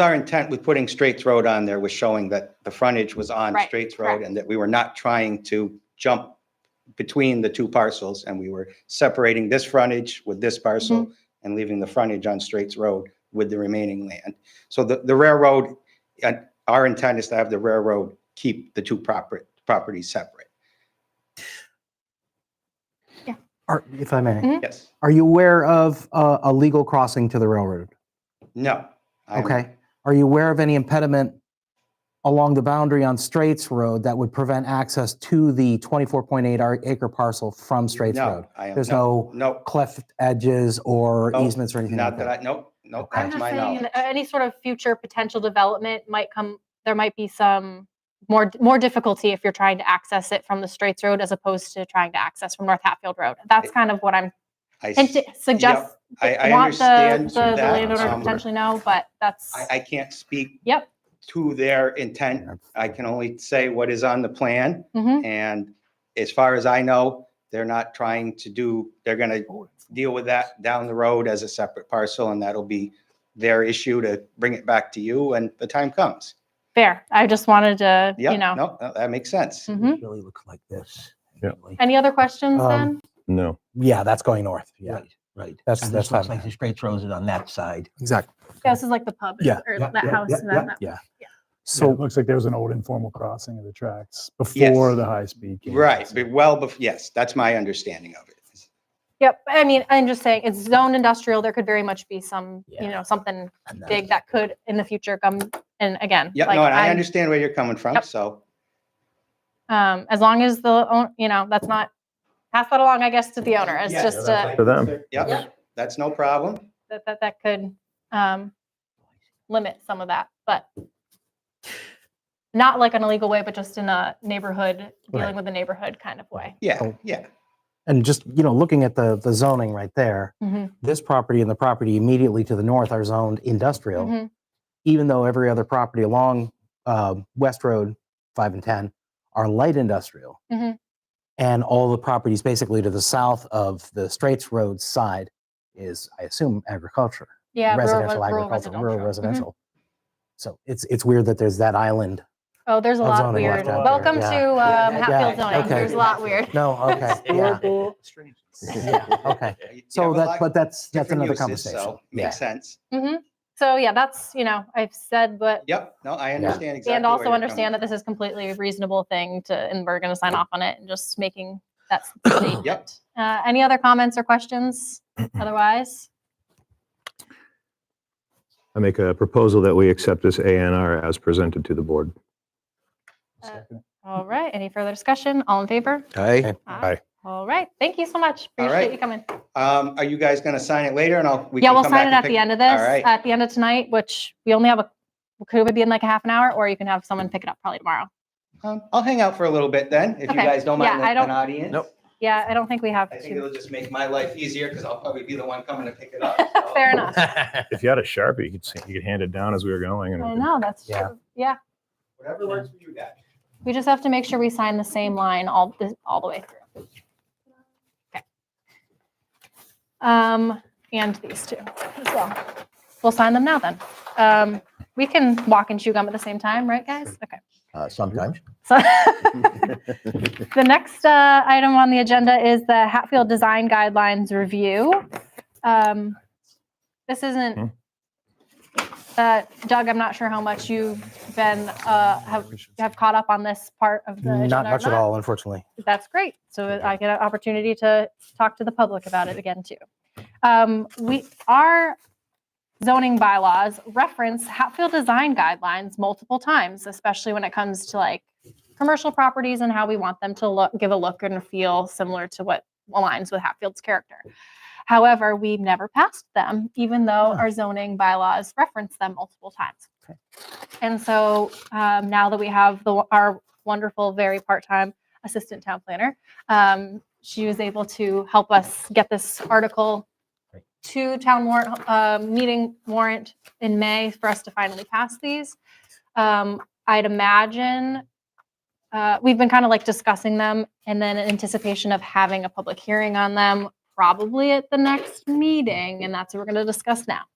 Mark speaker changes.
Speaker 1: our intent with putting Straits Road on there was showing that the frontage was on
Speaker 2: Right,
Speaker 1: Straits Road
Speaker 2: correct.
Speaker 1: and that we were not trying to jump between the two parcels and we were separating this frontage with this parcel
Speaker 2: Mm-hmm.
Speaker 1: and leaving the frontage on Straits Road with the remaining land. So the, the railroad, uh, our intent is to have the railroad keep the two proper, properties separate.
Speaker 3: Are, if I may,
Speaker 2: Mhm.
Speaker 1: Yes.
Speaker 3: are you aware of uh, a legal crossing to the railroad?
Speaker 1: No. I'm-
Speaker 3: Okay. Are you aware of any impediment along the boundary on Straits Road that would prevent access to the 24.8 ar- acre parcel from Straits Road?
Speaker 1: No, I am,
Speaker 3: There's
Speaker 1: no,
Speaker 3: no
Speaker 1: no,
Speaker 3: cleft edges or
Speaker 1: No,
Speaker 3: easements or anything like
Speaker 1: not that
Speaker 3: that?
Speaker 1: I, no, no,
Speaker 3: Okay.
Speaker 2: I'm
Speaker 1: that's
Speaker 2: just
Speaker 1: my
Speaker 2: saying,
Speaker 1: knowledge.
Speaker 2: uh, any sort of future potential development might come, there might be some more, more difficulty if you're trying to access it from the Straits Road as opposed to trying to access from North Hatfield Road. That's kind of what I'm,
Speaker 1: I
Speaker 2: hint- suggest,
Speaker 1: I- I
Speaker 2: want the,
Speaker 1: understand
Speaker 2: the the
Speaker 1: that,
Speaker 2: landowner to
Speaker 1: um,
Speaker 2: potentially know, but that's,
Speaker 1: I, I can't speak.
Speaker 2: Yep.
Speaker 1: To their intent. I can only say what is on the plan.
Speaker 2: Mhm.
Speaker 1: And as far as I know, they're not trying to do, they're gonna deal with that down the road as a separate parcel and that'll be their issue to bring it back to you and the time comes.
Speaker 2: fair. I just wanted to,
Speaker 1: Yeah,
Speaker 2: you know.
Speaker 1: no, no, that makes sense.
Speaker 2: Mhm.
Speaker 3: Really look like this.
Speaker 4: Yeah.
Speaker 2: Any other questions
Speaker 3: Um,
Speaker 2: then?
Speaker 4: No.
Speaker 3: Yeah, that's going north. Yeah,
Speaker 5: Right, right.
Speaker 3: That's-
Speaker 5: And
Speaker 3: that's
Speaker 5: this looks
Speaker 3: fine.
Speaker 5: like the straight throws it on that side.
Speaker 3: exactly.
Speaker 2: Yeah, This is like the pub
Speaker 3: Yeah,
Speaker 2: or
Speaker 5: yeah,
Speaker 2: that
Speaker 5: yeah,
Speaker 2: house.
Speaker 5: yeah,
Speaker 2: and then that-
Speaker 3: yeah.
Speaker 6: So it
Speaker 3: So,
Speaker 6: looks like there was an old informal crossing of the tracks
Speaker 1: Yes.
Speaker 6: before the high-speed.
Speaker 2: Mm-hmm.
Speaker 6: came.
Speaker 1: Right, but well, bef- yes, that's my understanding of it.
Speaker 2: Yep. I mean, I'm just saying it's zoned industrial. There could very much be some, you
Speaker 5: Yeah.
Speaker 2: know, something
Speaker 5: and
Speaker 2: big that could in the future come and again
Speaker 1: Yeah,
Speaker 2: like
Speaker 1: no, and I
Speaker 2: I'm-
Speaker 1: understand where you're coming from,
Speaker 2: Yep.
Speaker 1: so,
Speaker 2: um as long as the own you know that's not pass that along i guess to the owner it's
Speaker 1: Yeah,
Speaker 2: just
Speaker 4: that's
Speaker 2: uh,
Speaker 4: For them.
Speaker 1: yeah, that's no problem.
Speaker 2: that, that that could um limit some of that but not like an illegal way but just in a neighborhood dealing
Speaker 3: Right.
Speaker 2: with a neighborhood kind of way
Speaker 1: Yeah,
Speaker 3: Oh.
Speaker 1: yeah,
Speaker 3: and just, you know, looking at the, the zoning right there,
Speaker 1: Mm-hmm.
Speaker 2: Mhm,
Speaker 3: this property and the property immediately to the north are zoned industrial.
Speaker 2: mhm.
Speaker 3: even though every other property along uh, West Road 5 and 10 are light industrial.
Speaker 2: Mhm.
Speaker 3: And all the properties basically to the south of the Straits Road side is, I assume, agriculture,
Speaker 2: yeah rural-
Speaker 3: residential
Speaker 2: rural
Speaker 3: agriculture,
Speaker 2: residential.
Speaker 3: rural
Speaker 2: Mhm.
Speaker 3: residential. So it's, it's weird that there's that island.
Speaker 2: oh there's a
Speaker 3: of
Speaker 2: lot
Speaker 3: zoning
Speaker 2: weird
Speaker 3: left out there.
Speaker 2: welcome
Speaker 3: Yeah.
Speaker 2: to
Speaker 5: Yeah,
Speaker 2: um,
Speaker 5: yeah,
Speaker 2: hatfield
Speaker 3: yeah,
Speaker 2: zoning
Speaker 3: okay.
Speaker 2: there's a lot weird
Speaker 3: No, okay, yeah, yeah, okay.
Speaker 1: You
Speaker 3: So
Speaker 1: have a
Speaker 3: that,
Speaker 1: lot
Speaker 3: but that's, that's
Speaker 1: different
Speaker 3: another
Speaker 1: uses, so
Speaker 3: conversation. Yeah.
Speaker 1: Makes sense.
Speaker 2: hmm so yeah that's you know i've said what
Speaker 1: Yep, no, I understand exactly.
Speaker 2: And
Speaker 1: where
Speaker 2: also
Speaker 1: you're coming
Speaker 2: understand that this is completely a reasonable thing to, and we're going to sign off on it and just making that statement.
Speaker 1: Yep.
Speaker 2: Uh, any other comments or questions? Otherwise,
Speaker 4: I make a proposal that we accept this ANR as presented to the board.
Speaker 6: Second.
Speaker 2: all right. Any further discussion? All in favor?
Speaker 3: Okay.
Speaker 4: Aye.
Speaker 2: All right. Thank you so much.
Speaker 1: All
Speaker 2: Appreciate
Speaker 1: right.
Speaker 2: you coming.
Speaker 1: Um, are you guys gonna sign it later and I'll? we
Speaker 2: yeah,
Speaker 1: can
Speaker 2: we'll
Speaker 1: come
Speaker 2: sign it
Speaker 1: back and
Speaker 2: at the
Speaker 1: pick-
Speaker 2: end of this,
Speaker 1: right.
Speaker 2: at the end of tonight, which we only have a could it be in like a half an hour, or you can have someone pick it up probably tomorrow.
Speaker 1: Um, I'll hang out for a little bit then, if you
Speaker 2: Okay.
Speaker 1: guys don't mind
Speaker 2: Yeah, I
Speaker 1: an
Speaker 2: don't-
Speaker 1: an audience.
Speaker 5: Nope.
Speaker 2: Yeah, I don't think we have.
Speaker 1: I think
Speaker 2: to-
Speaker 1: it'll just make my life easier because I'll probably be the one coming to pick it up. so.
Speaker 4: Oh.
Speaker 2: Fair enough.
Speaker 4: If you had a Sharpie, you could, s- you could hand it down as we were going. and
Speaker 2: I
Speaker 4: everything.
Speaker 2: know that's
Speaker 3: Yeah.
Speaker 2: true. Yeah,
Speaker 1: Whatever works for you guys.
Speaker 2: we just have to make sure we sign the same line all the all the way through. Um, and these two as well. We'll sign them now then. Um, we can walk and chew gum at the same time, right, guys? Okay.
Speaker 5: Uh, Sometimes.
Speaker 2: So the next uh, item on the agenda is the Hatfield Design Guidelines Review. Um, this
Speaker 4: Hmm.
Speaker 2: isn't, uh, Doug, I'm not sure how much you've been, uh, have, have caught up on this part of the.
Speaker 3: Not
Speaker 2: agenda or
Speaker 3: much at all, unfortunately.
Speaker 2: that's great. So I get an opportunity to talk to the public about it again too. Um, we, our zoning bylaws reference Hatfield design guidelines multiple times, especially when it comes to like commercial properties and how we want them to look, give a look and feel similar to what aligns with Hatfield's character. However, we've never passed them, even though our zoning bylaws reference them multiple times. And so um, now that we have the, our wonderful, very part-time assistant town planner. Um, she was able to help us get this article to town warrant, uh, meeting warrant in May for us to finally pass these. Um, I'd imagine, uh, we've been kind of like discussing them and then in anticipation of having a public hearing on them, probably at the next meeting, and that's what we're going to discuss now.